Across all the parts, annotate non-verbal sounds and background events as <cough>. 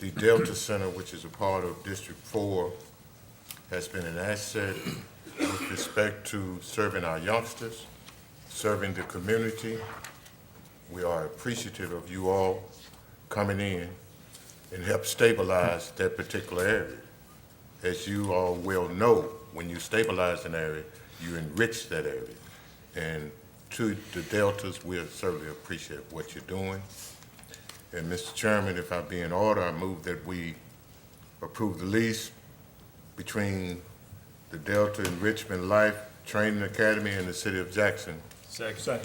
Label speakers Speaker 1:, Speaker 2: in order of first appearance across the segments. Speaker 1: The Delta Center, which is a part of District Four, has been an asset with respect to serving our youngsters, serving the community. We are appreciative of you all coming in and help stabilize that particular area. As you all well know, when you stabilize an area, you enrich that area. And to the Deltas, we certainly appreciate what you're doing. And Mr. Chairman, if I be in order, I move that we approve the lease between the Delta Enrichment Life Training Academy and the City of Jackson.
Speaker 2: Second.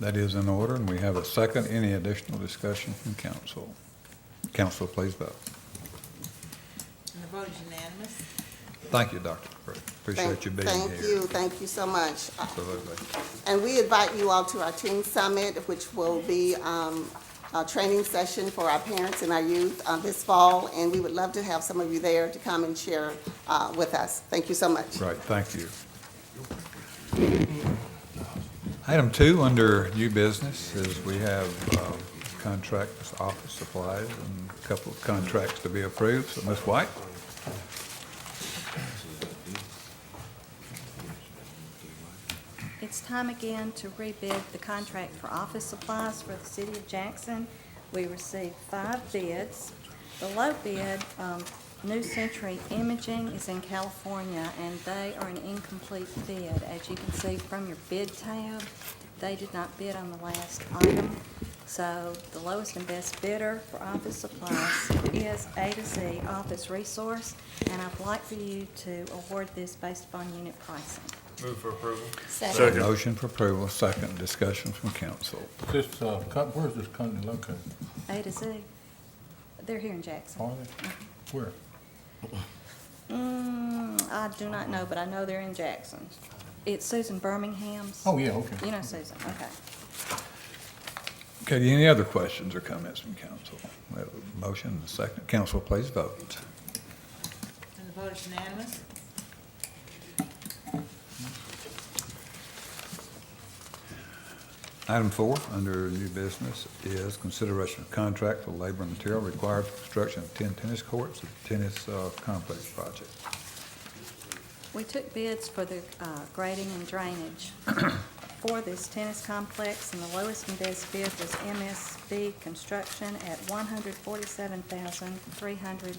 Speaker 3: That is in order, and we have a second. Any additional discussion from council? Council, please vote.
Speaker 4: And the vote is unanimous.
Speaker 3: Thank you, Dr. Pruitt. Appreciate
Speaker 5: Thank
Speaker 3: you being
Speaker 5: Thank
Speaker 3: here.
Speaker 5: you, thank you so much. Uh,
Speaker 3: Absolutely.
Speaker 5: And we invite you all to our teen summit, which will be um, a training session for our parents and our youth uh, this fall, and we would love to have some of you there to come and share uh, with us. Thank you so much.
Speaker 3: Right, thank you. Item two, under new business, is we have um, contracts, office supplies, and a couple of contracts to be approved. So, Ms. White?
Speaker 6: It's time again to rebid the contract for office supplies for the city of Jackson. We received five bids. The low bid, um, New Century Imaging is in California, and they are an incomplete bid. As you can see from your bid tab, they did not bid on the last item. So the lowest and best bidder for office supplies is A to Z Office Resource, and I'd like for you to award this based upon unit pricing.
Speaker 2: Move for approval.
Speaker 1: Second.
Speaker 3: Motion for approval, second. Discussion from council.
Speaker 7: This, uh, co- where's this company located?
Speaker 6: A to Z. They're here in Jackson.
Speaker 7: Are they? Where?
Speaker 6: Mm, I do not know, but I know they're in Jackson. It's Susan Birmingham's.
Speaker 7: Oh, yeah, okay.
Speaker 6: You know Susan, okay.
Speaker 3: Okay, any other questions or comments from council? We have a motion and a second. Council, please vote.
Speaker 4: And the vote is unanimous.
Speaker 3: Item four, under new business, is consideration of contract for labor and material required for construction of 10 tennis courts at the tennis uh, complex project.
Speaker 6: We took bids for the uh, grading and drainage <coughs> for this tennis complex, and the lowest and best bid was MSB Construction at one hundred forty-seven thousand, three hundred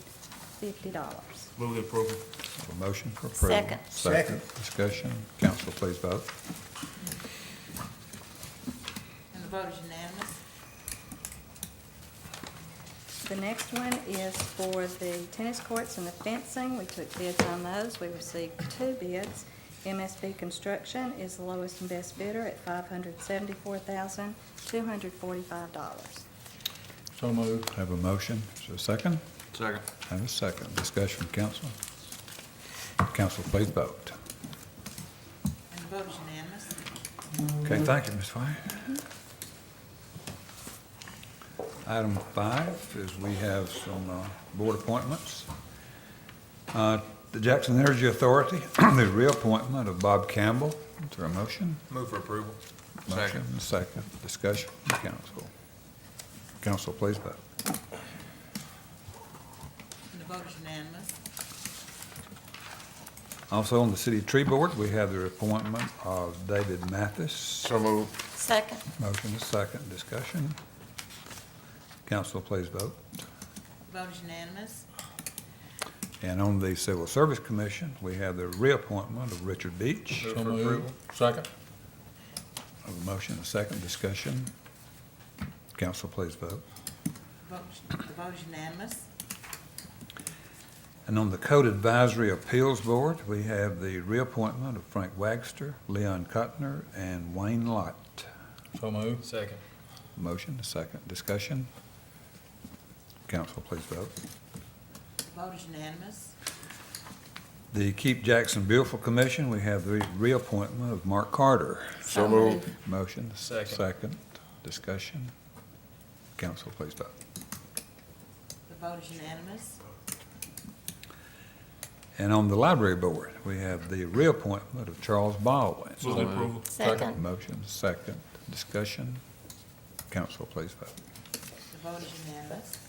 Speaker 6: fifty dollars.
Speaker 2: Move the approval.
Speaker 3: A motion for approval.
Speaker 6: Second.
Speaker 3: Second. Discussion. Council, please vote.
Speaker 4: And the vote is unanimous.
Speaker 6: The next one is for the tennis courts and the fencing. We took bids on those. We received two bids. MSB Construction is the lowest and best bidder at five hundred seventy-four thousand, two hundred forty-five dollars.
Speaker 7: So moved.
Speaker 3: Have a motion. Is there a second?
Speaker 2: Second.
Speaker 3: Have a second. Discussion from council. Council, please vote.
Speaker 4: And the vote is unanimous.
Speaker 3: Okay, thank you, Ms. White. Item five is we have some uh, board appointments. Uh, The Jackson Energy Authority, <clears throat> the reappointment of Bob Campbell. Is there a motion?
Speaker 2: Move for approval.
Speaker 3: Motion and a Second. Discussion from council. Council, please vote.
Speaker 4: And the vote is unanimous.
Speaker 3: Also on the City Tree Board, we have the appointment of David Mathis.
Speaker 1: So moved.
Speaker 5: Second.
Speaker 3: Motion and a second. Discussion. Council, please vote.
Speaker 4: The vote is unanimous.
Speaker 3: And on the Civil Service Commission, we have the reappointment of Richard Beach.
Speaker 2: Move
Speaker 7: So
Speaker 2: for
Speaker 7: moved.
Speaker 2: approval.
Speaker 7: Second.
Speaker 3: A motion, a second discussion. Council, please vote.
Speaker 4: The vote- the vote is unanimous.
Speaker 3: And on the Code Advisory Appeals Board, we have the reappointment of Frank Wagster, Leon Cutner, and Wayne Lott.
Speaker 7: So moved.
Speaker 2: Second.
Speaker 3: Motion, a second discussion. Council, please vote.
Speaker 4: The vote is unanimous.
Speaker 3: The Keep Jackson Beautiful Commission, we have the reappointment of Mark Carter.
Speaker 1: So moved.
Speaker 3: Motion, a
Speaker 2: Second.
Speaker 3: second discussion. Council, please vote.
Speaker 4: The vote is unanimous.
Speaker 3: And on the library board, we have the reappointment of Charles Baldwin.
Speaker 7: Move the approval.
Speaker 5: Second.
Speaker 3: Motion, second, discussion. Council, please vote.
Speaker 4: The vote is unanimous.